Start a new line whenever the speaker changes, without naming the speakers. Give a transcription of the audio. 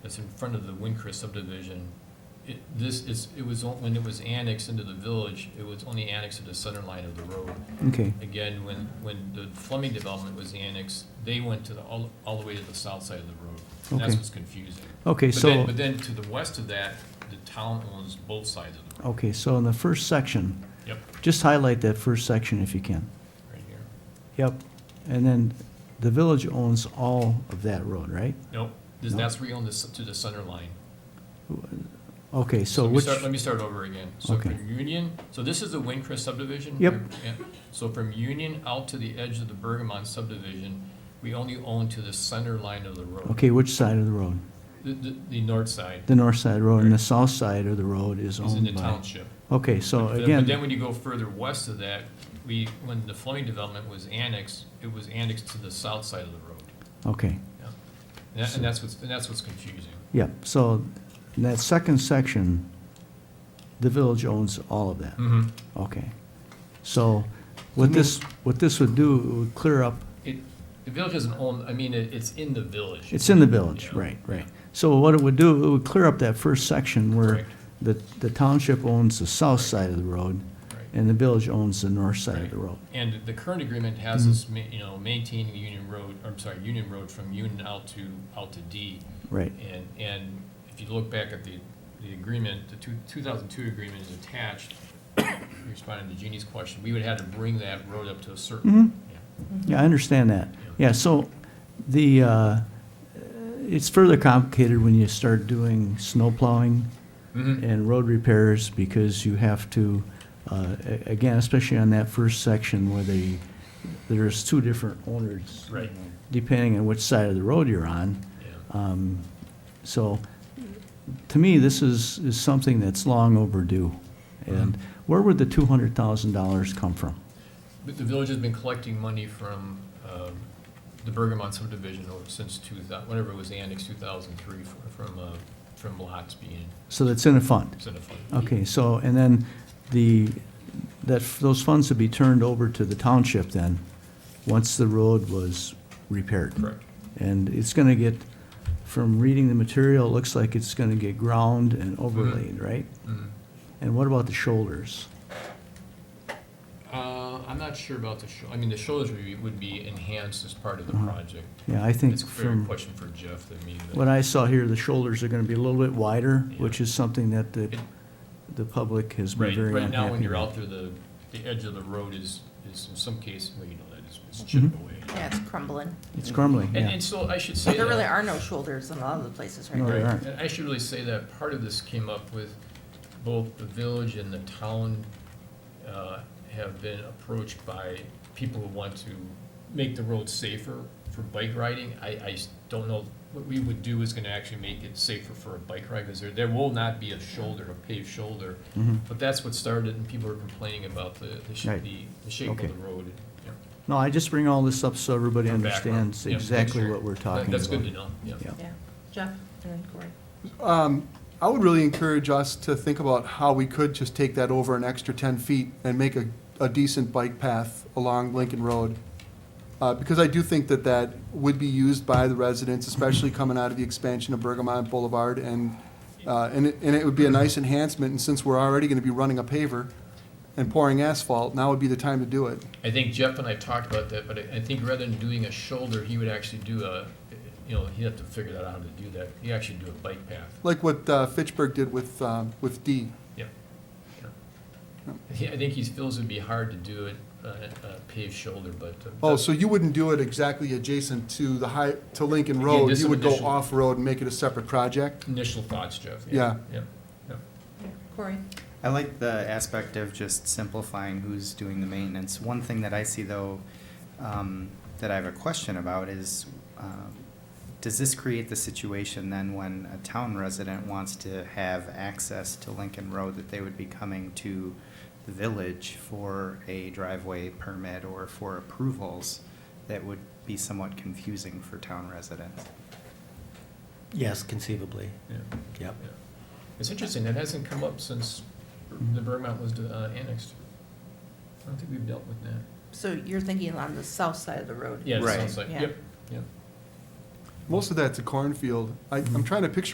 that's in front of the Windcrest subdivision, it, this is, it was, on- when it was annexed into the village, it was only annexed to the center line of the road.
Okay,
Again, when, when the Fleming development was annexed, they went to the, all, all the way to the south side of the road. And that's
Okay.
what's confusing.
okay,
But then,
so,
but then to the west of that, the town owns both sides of the road.
okay, so in the first section,
Yep,
just highlight that first section if you can.
right here.
Yep. And then the village owns all of that road, right?
Nope, this, that's where you own this, to the center line.
Okay, so
Let me
which,
start, let me start over again. So
Okay.
from Union, so this is the Windcrest subdivision?
Yep.
Yeah. So from Union out to the edge of the Bergamon subdivision, we only own to the center line of the road.
okay, which side of the road?
The, the, the north side
The north side road and the south side of the road is
is in the
owned by.
township.
Okay, so
But then- But then
Oh again,
when you go further west of that, we, when the Fleming development was annexed, it was annexed to the south side of the road.
okay,
Yeah. And that- And that's what's, and that's what's confusing.
yep, so in that second section, the village owns all of that,
Mm-hmm.
okay. So what this, what this would do, it would clear up,
It, the village doesn't own, I mean, it, it's in the village.
it's in the village,
Yeah.
right, right. So what it would do, it would clear up that first section where
Correct.
the, the township owns the south side of the road
Right.
and the village owns the north side of
Right.
the road.
And the current agreement has us, ma- you know, maintaining Union Road, I'm sorry, Union Road from Union out to, out to D.
Right,
And, and if you look back at the, the agreement, the two, two thousand two agreement is attached, responding to Jeannie's question, we would have to bring that road up to a certain. yeah.
yeah, I understand that. Yeah, so the, uh, it's further complicated when you start doing snow plowing
Mm-hmm.
and road repairs because you have to, uh, a- again, especially on that first section where the, there's two different owners.
Right.
Depending on which side of the road you're on.
Yeah.
Um, So, to me, this is, is something that's long overdue. And where would the two hundred thousand dollars come from?
But the village has been collecting money from, um, the Bergamot subdivision over- since two thou, whenever it was annexed, two thousand three, from, uh, from lots being,
So that's in a fund.
it's in a fund.
Okay, so, and then the, that, those funds would be turned over to the township then, once the road was repaired.
Correct.
And it's gonna get, from reading the material, it looks like it's gonna get ground and
Mm-hmm.
overlaid, right?
Mhm.
And what about the shoulders?
Uh, I'm not sure about the show, I mean, the shoulders would be, would be enhanced as part of the project.
Yeah, Mm-hmm. I think
It's a fair
from
question for Jeff, I mean, but-
what I saw here, the shoulders are gonna be a little bit wider,
Yeah.
which is something that the,
It-
the public has been
right,
very unhappy
right now, when you're
with.
out there, the, the edge of the road is, is in some cases, well, you know, that is,
Mm-hmm.
it's chipped away.
Yeah, it's crumbling.
It's crumbling,
And,
yeah.
and so I should say
There really
that,
are no shoulders in a lot of the places right
No,
now.
there
right,
aren't.
and I should really say that part of this came up with both the village and the town, uh, have been approached by people who want to make the road safer for bike riding. I, I s- don't know, what we would do is gonna actually make it safer for a bike ride, because there, there will not be a shoulder, a paved shoulder. But that's what started, and people were complaining about the, the sh-
Mm-hmm. Right.
the, the shape of
Okay.
the road. yeah.
No, I just bring all this up so everybody
From background.
understands
Yeah,
exactly
sure.
what we're
That-
talking about.
That's good to know, yeah.
Yeah.
Yeah, Jeff and then Corey.
Um, I would really encourage us to think about how we could just take that over an extra ten feet and make a, a decent bike path along Lincoln Road. Uh, because I do think that that would be used by the residents, especially coming out of the expansion of Bergamot Boulevard and, uh, and it, and it would be a nice enhancement, and since we're already gonna be running a paver and pouring asphalt, now would be the time to do it.
I think Jeff and I talked about that, but I, I think rather than doing a shoulder, he would actually do a, you know, he'd have to figure that out how to do that. He actually do a bike path.
Like what, uh, Fitchburg did with, um, with D.
Yeah. He- I think he feels it'd be hard to do it, uh, uh, paved shoulder, but. uh,
Oh, so you wouldn't do it exactly adjacent to the high, to Lincoln
Yeah,
Road?
just
You
some
would go
additional-
off-road and make it a separate project?
Initial thoughts, Jeff. Yeah, yeah.
Corey?
I like the aspect of just simplifying who's doing the maintenance. One thing that I see though, um, that I have a question about is, um, does this create the situation then when a town resident wants to have access to Lincoln Road that they would be coming to the village for a driveway permit or for approvals that would be somewhat confusing for town residents?
Yes, conceivably,
yeah,
yep.
yeah. It's interesting, that hasn't come up since the Vermont was uh, annexed. I don't think we've dealt with that.
So you're thinking on the south side of the road?
Yeah, it
Right.
sounds like,
Yeah.
yep, yep.
Most of that's a cornfield. I, I'm trying to picture